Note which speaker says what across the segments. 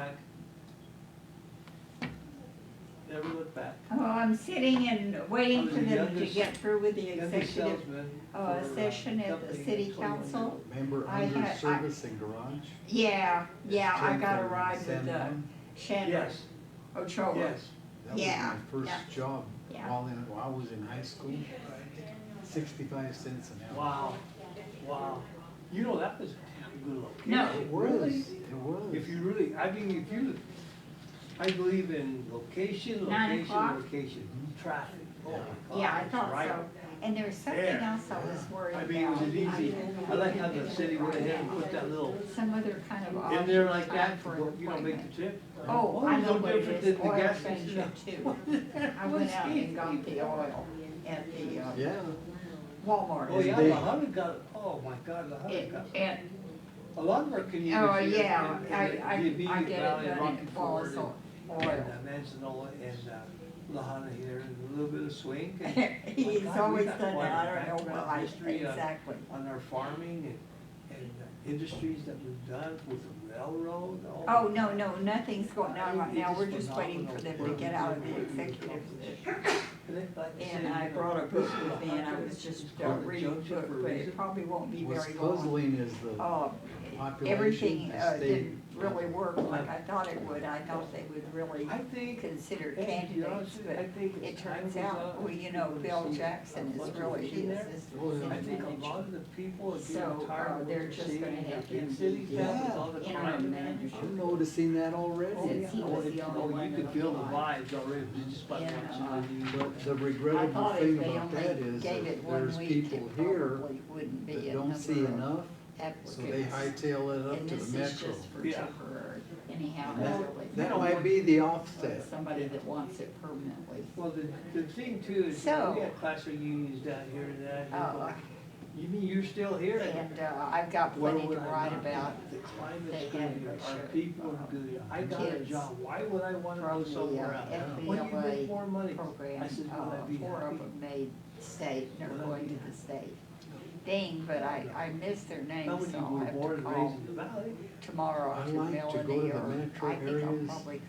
Speaker 1: back. Never look back.
Speaker 2: Oh, I'm sitting and waiting for them to get through with the
Speaker 1: Youngest
Speaker 2: executive.
Speaker 1: salesman
Speaker 2: uh,
Speaker 1: for,
Speaker 2: session at the
Speaker 1: company, 21
Speaker 2: city
Speaker 1: years
Speaker 2: council.
Speaker 1: old.
Speaker 3: Member
Speaker 2: I
Speaker 3: under
Speaker 2: had- I-
Speaker 3: service and garage?
Speaker 2: Yeah, yeah, I
Speaker 3: Ten
Speaker 2: got a
Speaker 3: thirty,
Speaker 2: ride with
Speaker 3: San
Speaker 2: uh,
Speaker 3: Juan.
Speaker 2: Shannon
Speaker 1: Yes,
Speaker 2: Ochoa.
Speaker 1: yes.
Speaker 2: Yeah,
Speaker 3: That was my
Speaker 2: yeah.
Speaker 3: first job
Speaker 2: Yeah.
Speaker 3: while in, while I was in high school, sixty-five cents an hour.
Speaker 1: Wow, wow. You know, that was a damn good location.
Speaker 2: No.
Speaker 3: It was, it was.
Speaker 1: If you really, I mean, if you, I believe in location,
Speaker 2: Nine
Speaker 1: location,
Speaker 2: o'clock?
Speaker 1: location, traffic. Oh my God,
Speaker 2: Yeah, I
Speaker 1: it's
Speaker 2: thought
Speaker 1: right.
Speaker 2: so. And there was something
Speaker 1: There.
Speaker 2: else I was worried
Speaker 1: I
Speaker 2: about.
Speaker 1: mean, it was easy.
Speaker 2: I-
Speaker 1: I like how the city went ahead and put that little
Speaker 2: Some other kind of odd
Speaker 1: in there like
Speaker 2: time
Speaker 1: that,
Speaker 2: for an
Speaker 1: you know, make
Speaker 2: appointment.
Speaker 1: the trip.
Speaker 2: Oh, I
Speaker 1: it's
Speaker 2: know
Speaker 1: no
Speaker 2: what it
Speaker 1: different
Speaker 2: is,
Speaker 1: than the
Speaker 2: oil
Speaker 1: gas
Speaker 2: changer
Speaker 1: station.
Speaker 2: too. I went out and got the oil at the uh,
Speaker 3: Yeah,
Speaker 2: Walmart.
Speaker 1: Oh, yeah,
Speaker 3: They-
Speaker 1: La Habra got, oh my God, La Habra
Speaker 2: It-
Speaker 1: got,
Speaker 2: And
Speaker 1: a lot of our communities.
Speaker 2: Oh,
Speaker 1: here
Speaker 2: yeah,
Speaker 1: in-
Speaker 2: I,
Speaker 1: in the
Speaker 2: I,
Speaker 1: immediate
Speaker 2: I get
Speaker 1: valley
Speaker 2: it
Speaker 1: of
Speaker 2: done
Speaker 1: Rocky
Speaker 2: in
Speaker 1: Ford
Speaker 2: balls
Speaker 1: And
Speaker 2: oil.
Speaker 1: uh, Manzanola and uh, La Habra here, and a little bit of swing. and- My
Speaker 2: He's
Speaker 1: God, we
Speaker 2: always
Speaker 1: got
Speaker 2: done
Speaker 1: quite
Speaker 2: that,
Speaker 1: a
Speaker 2: I don't know
Speaker 1: background
Speaker 2: why,
Speaker 1: history on-
Speaker 2: exactly.
Speaker 1: on our farming and, and uh, industries that we've done with the railroad.
Speaker 2: Oh, no, no, nothing's going on right now,
Speaker 1: It's
Speaker 2: we're just waiting for them
Speaker 1: phenomenal.
Speaker 2: to get out of the executive position. And I brought a book with me and I was just uh, reading a book, but it probably won't be
Speaker 3: was
Speaker 2: very long.
Speaker 3: puzzling is the,
Speaker 2: Uh,
Speaker 3: population,
Speaker 2: everything
Speaker 3: the
Speaker 2: uh,
Speaker 3: state.
Speaker 2: didn't really work like I thought it would, I thought they would really
Speaker 1: I think,
Speaker 2: consider
Speaker 1: and to be honest
Speaker 2: candidates,
Speaker 1: with you,
Speaker 2: but
Speaker 1: I think
Speaker 2: It
Speaker 1: it's time
Speaker 2: turns
Speaker 1: was
Speaker 2: out,
Speaker 1: up.
Speaker 2: well, you know,
Speaker 1: We've
Speaker 2: Bill
Speaker 1: seen
Speaker 2: Jackson
Speaker 1: a
Speaker 2: is
Speaker 1: bunch of
Speaker 2: really,
Speaker 1: issues
Speaker 2: he is
Speaker 1: there.
Speaker 2: this
Speaker 3: Oh, yeah.
Speaker 1: I think
Speaker 2: manager.
Speaker 1: a lot of the people are
Speaker 2: So,
Speaker 1: getting
Speaker 2: uh,
Speaker 1: tired of what
Speaker 2: they're
Speaker 1: they're
Speaker 2: just
Speaker 1: seeing
Speaker 2: gonna
Speaker 1: in
Speaker 2: have
Speaker 1: the big
Speaker 2: to
Speaker 1: cities now
Speaker 3: be
Speaker 1: with all the
Speaker 2: interim
Speaker 1: crime.
Speaker 2: manager.
Speaker 3: I'm noticing that already.
Speaker 2: Since he
Speaker 1: Oh,
Speaker 2: was
Speaker 1: it-
Speaker 2: the only
Speaker 1: oh,
Speaker 2: one
Speaker 1: You
Speaker 2: that
Speaker 1: could feel the
Speaker 2: applied.
Speaker 1: vibes already just by
Speaker 2: Yeah,
Speaker 1: watching the news.
Speaker 3: But the
Speaker 2: I
Speaker 3: regrettable
Speaker 2: thought if
Speaker 3: thing
Speaker 2: they
Speaker 3: about
Speaker 2: only
Speaker 3: that is
Speaker 2: gave it
Speaker 3: that
Speaker 2: one
Speaker 3: there's
Speaker 2: week,
Speaker 3: people
Speaker 2: it
Speaker 3: here
Speaker 2: probably wouldn't be
Speaker 3: that
Speaker 2: a
Speaker 3: don't
Speaker 2: number
Speaker 3: see
Speaker 2: of
Speaker 3: enough, so they
Speaker 2: applicants.
Speaker 3: hightail it up
Speaker 2: And
Speaker 3: to
Speaker 2: this
Speaker 3: the
Speaker 2: is
Speaker 3: metro.
Speaker 2: just for
Speaker 1: Yeah.
Speaker 2: temporary, anyhow,
Speaker 3: And
Speaker 2: that's
Speaker 3: that-
Speaker 2: really.
Speaker 3: That
Speaker 2: not
Speaker 3: might be the
Speaker 2: for
Speaker 3: offset.
Speaker 2: Somebody that wants it permanently.
Speaker 1: Well, the, the thing too is, we
Speaker 2: So-
Speaker 1: got classroom unions down here and that. and
Speaker 3: Oh,
Speaker 2: Uh,
Speaker 1: You mean you're still here?
Speaker 2: and, uh, I've got
Speaker 1: Where
Speaker 2: plenty to
Speaker 1: would I
Speaker 2: write
Speaker 1: not be?
Speaker 2: about
Speaker 1: The climate's
Speaker 2: they had
Speaker 1: good,
Speaker 2: their
Speaker 1: our
Speaker 2: share
Speaker 1: people
Speaker 2: of
Speaker 1: are good, I got a
Speaker 2: uh, kids
Speaker 1: job, why would I wanna
Speaker 2: from
Speaker 1: go
Speaker 2: the
Speaker 1: somewhere
Speaker 2: uh,
Speaker 1: else?
Speaker 3: else.
Speaker 1: When you make
Speaker 2: FBLA
Speaker 1: more money,
Speaker 2: program,
Speaker 1: I said, will
Speaker 2: uh,
Speaker 1: I be
Speaker 2: four
Speaker 1: happy?
Speaker 2: of them made state, and
Speaker 1: Will
Speaker 2: they're
Speaker 1: I
Speaker 2: going
Speaker 1: be
Speaker 2: to the state. Dang, but I, I missed their
Speaker 1: How
Speaker 2: names,
Speaker 1: many
Speaker 2: so I'll
Speaker 1: were born
Speaker 2: have to
Speaker 1: and
Speaker 2: call
Speaker 1: raised in the valley?
Speaker 2: tomorrow
Speaker 3: I
Speaker 2: to
Speaker 3: like to go to
Speaker 2: Melanie,
Speaker 3: the
Speaker 2: or
Speaker 3: metro
Speaker 2: I think I'll
Speaker 3: areas
Speaker 2: probably
Speaker 3: For the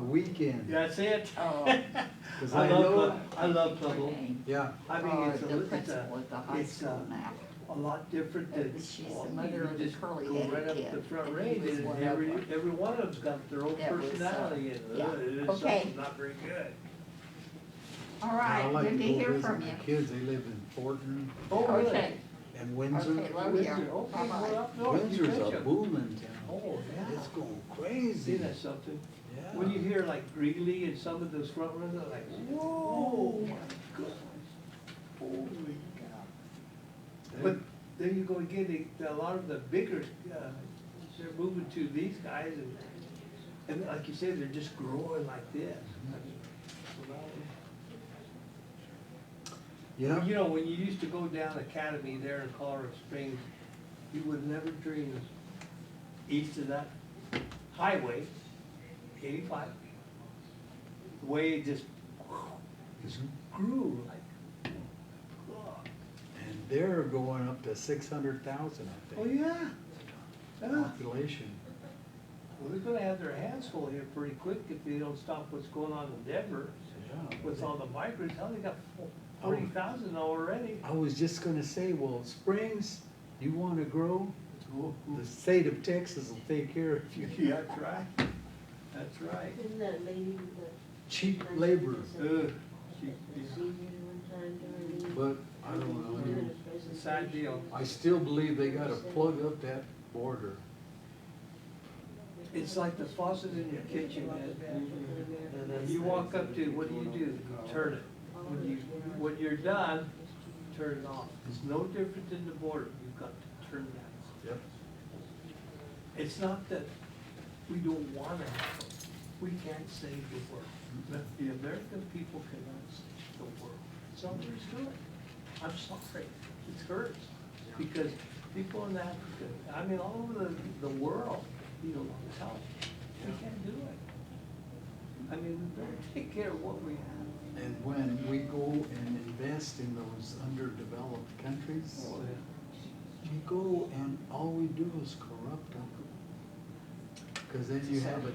Speaker 2: call.
Speaker 3: weekend,
Speaker 1: That's it.
Speaker 2: uh,
Speaker 3: because
Speaker 1: I
Speaker 3: I
Speaker 1: love
Speaker 3: know,
Speaker 1: Pueblo. I love
Speaker 2: her
Speaker 1: Pueblo.
Speaker 2: name,
Speaker 3: yeah,
Speaker 1: I mean,
Speaker 2: uh,
Speaker 1: it's
Speaker 2: The
Speaker 1: a, it's
Speaker 2: principal
Speaker 1: a,
Speaker 2: at the high
Speaker 1: it's,
Speaker 2: school
Speaker 1: uh,
Speaker 2: now.
Speaker 1: a lot different
Speaker 2: Uh,
Speaker 1: than.
Speaker 2: she's
Speaker 1: well,
Speaker 2: the mother
Speaker 1: you
Speaker 2: of the
Speaker 1: just go
Speaker 2: curly-headed
Speaker 1: right up
Speaker 2: kid,
Speaker 1: the front
Speaker 2: and he
Speaker 1: range,
Speaker 2: was
Speaker 1: and
Speaker 2: one of
Speaker 1: every,
Speaker 2: them.
Speaker 1: every one of them's got their own
Speaker 2: That was, uh,
Speaker 1: personality, and
Speaker 2: yeah.
Speaker 1: uh, it's
Speaker 2: Okay.
Speaker 1: something not very good.
Speaker 2: All
Speaker 3: And I
Speaker 2: right,
Speaker 3: like
Speaker 2: good to
Speaker 3: go
Speaker 2: hear
Speaker 3: visit
Speaker 2: from
Speaker 3: my
Speaker 2: you.
Speaker 3: Kids, they live in Fortin
Speaker 1: Oh, really?
Speaker 2: Okay,
Speaker 3: and Windsor.
Speaker 2: okay, love
Speaker 1: Windsor,
Speaker 2: you.
Speaker 1: okay, well,
Speaker 2: Bye-bye.
Speaker 1: up north, Oh, you
Speaker 3: Windsor's a
Speaker 1: betcha.
Speaker 3: booming town.
Speaker 1: Oh, yeah.
Speaker 3: It's going
Speaker 1: See
Speaker 3: crazy.
Speaker 1: that something?
Speaker 3: Yeah.
Speaker 1: When you hear like Greeley and some of those front runners, they're
Speaker 2: Oh,
Speaker 1: like, whoa, my goodness, holy cow. But there you go again, they, a lot of the bigger, uh, they're moving to these guys and, and like you said, they're just growing like this.
Speaker 3: Yeah,
Speaker 1: You know, when you used to go down Academy there in Colorado Springs, you would never dream of east of that highway, eighty-five. The way it just, just grew like, God.
Speaker 3: and they're going up to six hundred thousand, I
Speaker 1: Oh,
Speaker 3: think,
Speaker 1: yeah. Yeah.
Speaker 3: population.
Speaker 1: Well, they're gonna have their hands full here pretty quick if they don't stop what's going on in Denver
Speaker 3: Yeah.
Speaker 1: with all the migrants. Hell, they got forty thousand already.
Speaker 3: I was just gonna say, well, Springs, you wanna grow,
Speaker 1: Ooh, ooh.
Speaker 3: the state of Texas will take care of you.
Speaker 1: Yeah, that's right. That's right.
Speaker 4: Isn't that a lady with the
Speaker 3: Cheap labor,
Speaker 1: Ugh, she- she's
Speaker 4: procedure one time during the?
Speaker 3: but I don't know.
Speaker 1: a sad deal.
Speaker 3: I still believe they gotta plug up that border.
Speaker 1: It's like the faucet in your kitchen, man. You walk up to, it, what do you do? You Turn it. When you, when you're done, turn it off. It's no different than the border. You've got to turn that off.
Speaker 3: Yep.
Speaker 1: It's not that we don't want to, we can't save the world. But The American people cannot save the world. Somebody's doing it. I'm sorry, it hurts. Because people in Africa, I mean, all over the, the world, need a lot of help. We can't do it. I mean, we better take care of what we have.
Speaker 3: And when we go and invest in those underdeveloped countries, we go and all we do is corrupt them. Cause then you have a